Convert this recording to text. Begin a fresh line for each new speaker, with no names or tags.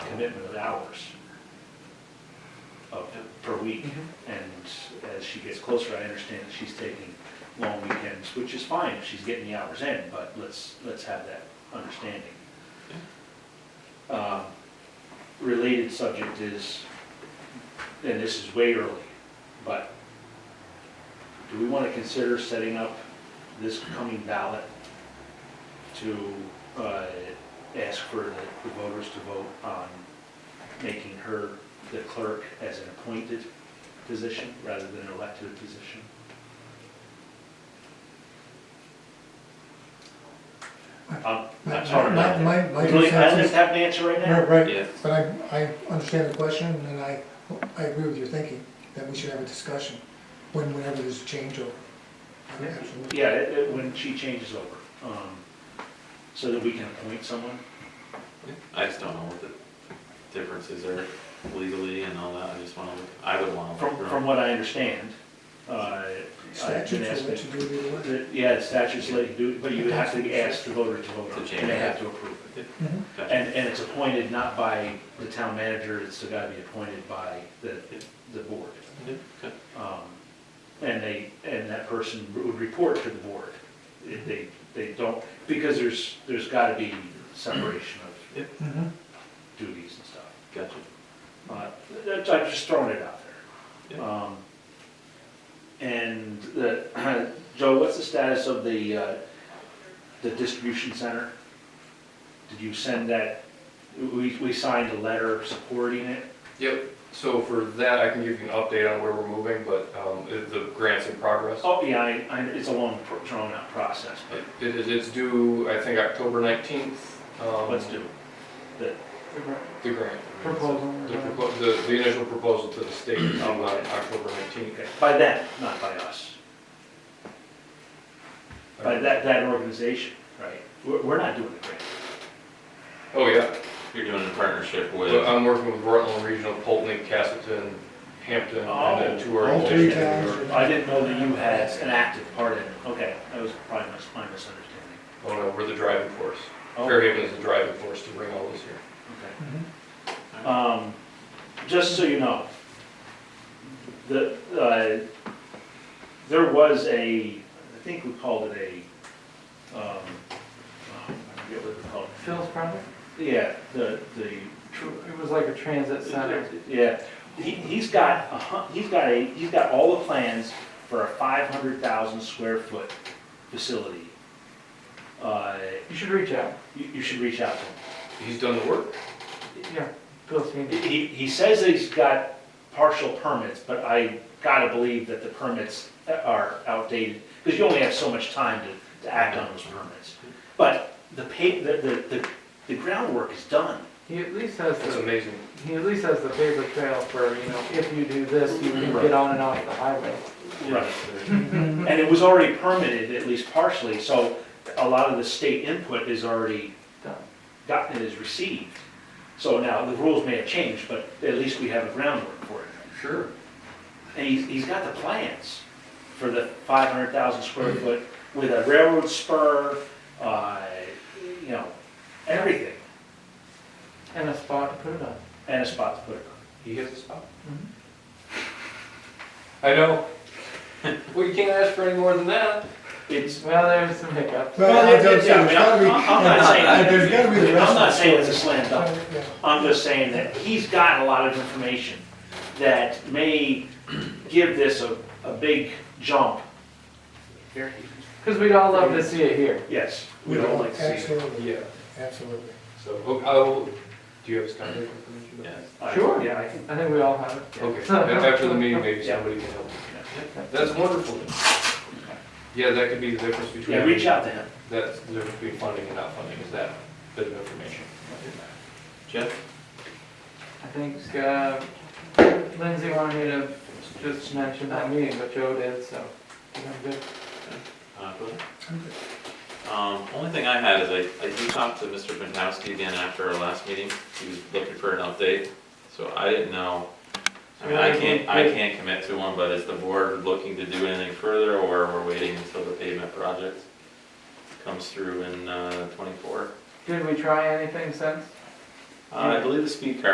commitment of hours of, per week. And as she gets closer, I understand that she's taking long weekends, which is fine if she's getting the hours in, but let's, let's have that understanding. Um, Related subject is, and this is way early, but do we want to consider setting up this coming ballot to uh, ask for the the voters to vote on making her the clerk as an appointed position rather than an elected position? I'm I'm sorry.
My- my- my
Really, I
consensus-
just have an answer right now.
Right, right,
Yeah.
but I, I understand the question, and I, I agree with your thinking, that we should have a discussion when, whenever there's a changeover. Absolutely.
Yeah, it- it- when she changes over, um, so that we can appoint someone.
I just don't know what the differences are legally and all that, I just wanna, look I would wanna. look
From,
around.
from what I understand, uh. I've been
Statutes will let
asked-
you do it either way.
the- Yeah, the statutes let you do, it, but you would have to ask the voter to vote on
To
it,
change
and they
it.
have to approve it.
Mhm.
Gotcha.
And, and it's appointed not by the town manager, it's gotta be appointed by the, the board.
Yeah, okay.
Um, And they, and that person would report to the board. If They, they don't, because there's, there's gotta be separation of
Mhm.
duties and stuff.
Gotcha.
Uh, that's- I'm just throwing it out there.
Yeah.
Um, And the, Joe, what's the status of the, uh, the distribution center? Did you send that, we, we signed a letter supporting it?
Yep, so for that, I can give you an update on where we're moving, but um, it- the grant's in progress.
Oh, yeah, I, I, it's a long pro- drawn out process,
It- it- It's due, I think, October 19th.
but
um,
let's do the
The grant.
proposal.
The propo- The the initial proposal to the state is on October 19th.
Okay, by them, not by us, by that, that organization, right? We're, we're not doing the grant.
Oh, yeah.
You're doing it in partnership with,
But I'm working with Rutland Regional, Polton, Castleton, Hampton, and then two
Oh. All three
organizations. in New
towns.
York.
I didn't know that you had an active part in it. Okay, that was probably mis- my misunderstanding.
Oh, no, we're the driving force.
Oh,
Fairhaven is the driving force to bring all this here.
okay.
Mhm.
Um, Just so you know, the, uh, there was a, I think we called it a, um, oh, I forget what we called
Phil's project?
it. Yeah, the, the. tr-
It was like a transit center.
Yeah, he, he's got, a hu- he's got a, he's got all the plans for a five hundred thousand square foot facility. Uh,
You should reach out.
You, you should reach out to
He's done the work.
Yeah, Phil's team.
him. He, he says that he's got partial permits, but I gotta believe that the permits are outdated, because you only have so much time to, to act on those permits. But the pa, the, the, the, the groundwork is done.
He at least has
That's
the,
amazing.
he at least has the paper trail for, you know, if you do this, you can get on and off the highway.
Right. And it was already permitted, at least partially, so a lot of the state input is already
Done.
gotten, is received. So now, the rules may have changed, but at least we have a groundwork for it.
Sure.
And he's, he's got the plans for the five hundred thousand square foot with a railroad spur, uh, you know, everything,
And a spot to put it on.
and a spot to put it
He hits the spot.
Mhm.
Oh. I know. Well, you can't ask for any more than that.
on. It's,
Well, there's some hiccups.
But I
Well, yeah,
don't say,
yeah,
there's gotta be,
I'm- I'm not saying-
but there's gotta be the rest
I'm
of the
not saying
story.
it's a slam dunk,
Yeah.
I'm just saying that he's got a lot of information that may give this a, a big jump. Here,
Because we'd all love to see it here.
Yes, we don't like to see it.
Absolutely, absolutely.
So, Oh, I will, do you have his contact information?
yeah.
I-
Sure.
Yeah, I can,
I think we all have it.
Okay, and after the meeting, maybe somebody can help.
Yeah.
That's wonderful. Yeah, that could be the difference between.
yeah, reach out to him.
That's the difference between funding and not funding, is that bit of information.
Jeff?
I think, uh, Lindsay wanted me to just mention that meeting, but Joe did, so I think I'm good.
Uh, Bill? Um, only thing I had is I, I did talk to Mr. Pankowski again after our last meeting, he was looking for an update, so I didn't know. I mean, I can't, I can't commit to one, but is the board looking to do anything further, or we're waiting until the pavement project comes through in, uh, twenty-four?
Did we try anything since?
Uh, I believe the speed car